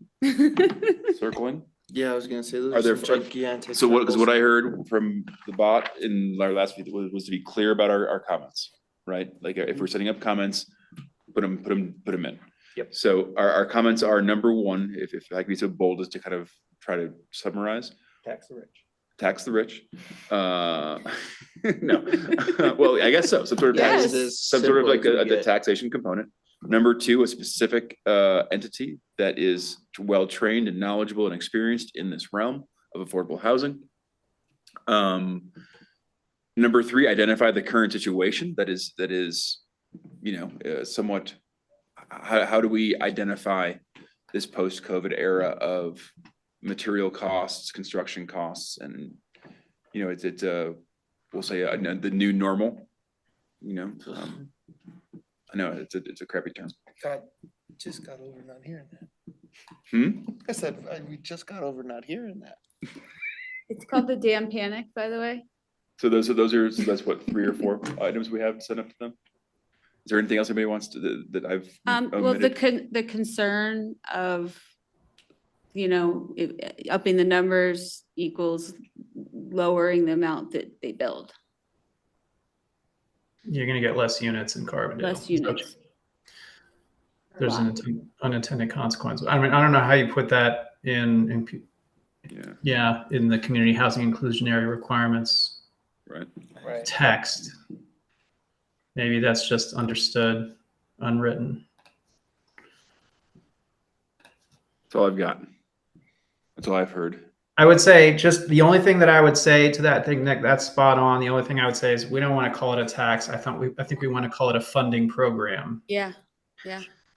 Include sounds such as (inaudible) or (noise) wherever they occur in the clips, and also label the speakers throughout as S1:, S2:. S1: (laughs) circling.
S2: Yeah, I was gonna say those
S1: Are
S2: are
S1: there-
S2: some
S1: are-
S2: gigantic.
S1: So what, cause what
S2: circles.
S1: I heard from the bot in our last meeting was, was to be clear about our, our comments, right? Like
S2: Mm-hmm.
S1: if we're setting up comments, put them, put them, put them in.
S2: Yep.
S1: So our, our comments are number one, if, if I could be so bold as to kind of try to summarize,
S3: Tax the rich.
S1: tax the rich. Uh, (laughs) no, Uh, well, I guess so, some sort of
S2: That
S1: tax,
S2: is as
S1: some sort of
S2: simple
S1: like
S2: as
S1: a,
S2: we
S1: a
S2: get.
S1: taxation component. Number two, a specific uh entity that is well-trained and knowledgeable and experienced in this realm of affordable housing. Um, number three, identify the current situation that is, that is, you know, uh, somewhat. How, how do we identify this post-COVID era of material costs, construction costs, and, you know, it's, it's, uh, we'll say, uh, the new normal, you know, um, I know, it's a, it's a crappy term.
S3: God, just got over not hearing that.
S1: Hmm?
S3: I said, I- we just got over not hearing that.
S4: It's called the damn panic, by the way.
S1: So those are, those are, so that's what, three or (laughs) four items we have sent up to them? Is there anything else anybody wants to, that- that I've
S4: Um, well, the
S1: omitted?
S4: con, the concern of, you know, it- upping the numbers equals lowering the amount that they build,
S5: You're gonna get less units in Carbondale.
S4: less
S5: So
S4: units.
S5: There's an atten- unintended consequence. I mean, I don't know how you put that in, in, p-
S1: Yeah,
S5: yeah, in the community housing inclusionary requirements
S1: right.
S3: Right.
S5: text. Maybe that's just understood, unwritten.
S1: That's all I've got. That's all I've heard.
S5: I would say just the only thing that I would say to that thing, Nick, that's spot on. The only thing I would say is we don't want to call it a tax. I thought we, I think we want to call it a funding program
S4: Yeah,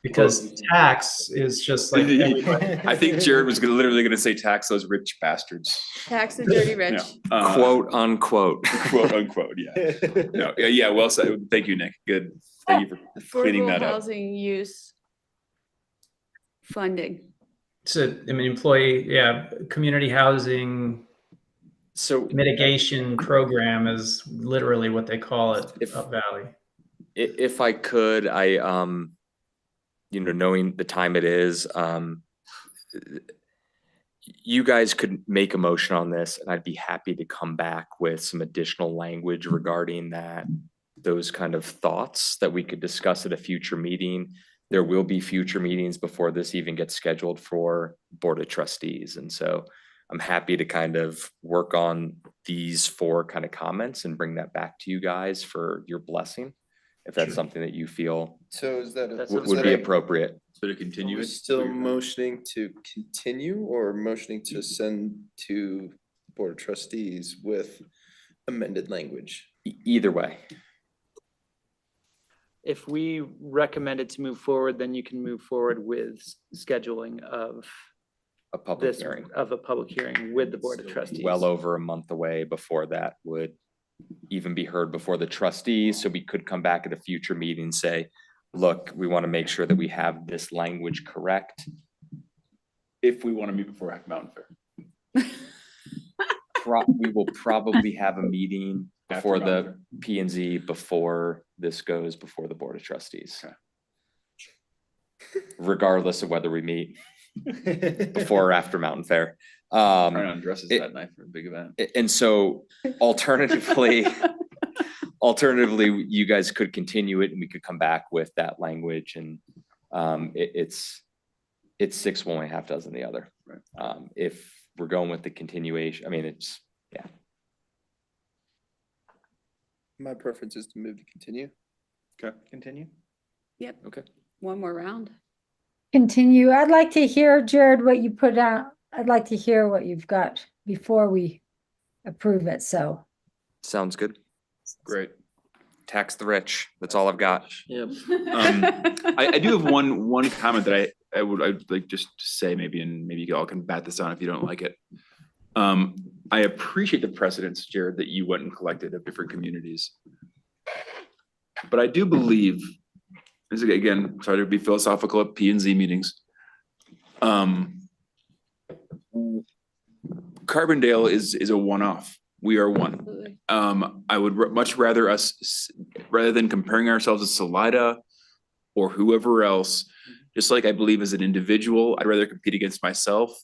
S5: because tax is
S1: (laughs)
S5: just like everybody-
S1: (laughs) I think Jared was gonna- literally gonna say tax those rich bastards.
S4: tax the dirty
S1: Yeah.
S4: rich.
S1: Uh,
S2: Quote unquote.
S1: Quote unquote, yeah.
S2: (laughs)
S1: No, yeah, yeah, well said. Thank you, Nick. Good. Thank you for cleaning
S4: Affordable
S1: that up.
S4: housing use funding.
S5: it's a, I mean, employee, yeah, community housing
S3: So
S5: mitigation program is literally what they call it
S2: If-
S5: up valley.
S2: I- if I could, I, um, you know, knowing the time it is, um, you guys could make a motion on this and I'd be happy to come back with some additional language regarding that. Those kind of thoughts that we could discuss at a future meeting. There will be future meetings before this even gets scheduled for Board of Trustees. And so I'm happy to kind of work on these four kind of comments and bring that back to you guys for your blessing if that's
S5: Sure.
S2: something that you feel
S3: (laughs) So is that? a-
S2: w- would be appropriate.
S1: So to
S3: Are
S1: continue
S3: we
S1: it?
S3: still motioning to continue or motioning to send to Board of Trustees with amended language?
S2: E- Either way,
S6: if we recommend it to move forward, then you can move forward with s- scheduling of
S2: a public
S6: this,
S2: hearing,
S6: of a public hearing with the Board of Trustees.
S2: well over a month away before that would even be heard before the trustees, so we could come back at a future meeting and say, look, we want to make sure that we have this language correct.
S1: If we wanna meet before Hack Mountain Fair.
S2: Pro- We will probably have a meeting
S1: after
S2: before
S1: Mountain
S2: the
S1: Fair.
S2: P and Z before this goes before the Board of Trustees.
S1: Okay.
S2: Regardless of whether we
S6: (laughs)
S2: meet before or after Mountain Fair. Um,
S1: Trying on dresses
S2: it-
S1: that night for a big event.
S2: A- And so alternatively, alternatively, you guys could continue it and we could come back with that language and um, it, it's, it's six one way, half dozen the other.
S1: Right.
S2: Um, if we're going with the continuation, I mean, it's,
S3: My preference is to move to continue.
S1: Okay.
S3: Continue?
S4: Yep.
S2: Okay.
S4: One more round.
S7: Continue. I'd like to hear, Jared, what you put out. I'd like to hear what you've got before we approve it, so.
S2: sounds good.
S1: Great.
S2: Tax the rich. That's all I've got.
S6: Yep.
S1: Um, I, I do have one, one comment that I, I would, I'd like just to say maybe, and maybe you all can bat this on if you don't like it. Um, I appreciate the precedence, Jared, that you went and collected of different communities. But I do believe, this is again, sorry to be philosophical at P and Z meetings. Um. Carbondale is, is a one-off. We are one.
S4: Absolutely.
S1: Um, I would r- much rather us, s- rather than comparing ourselves to Salida or whoever else, Just like I believe as an individual, I'd rather compete against myself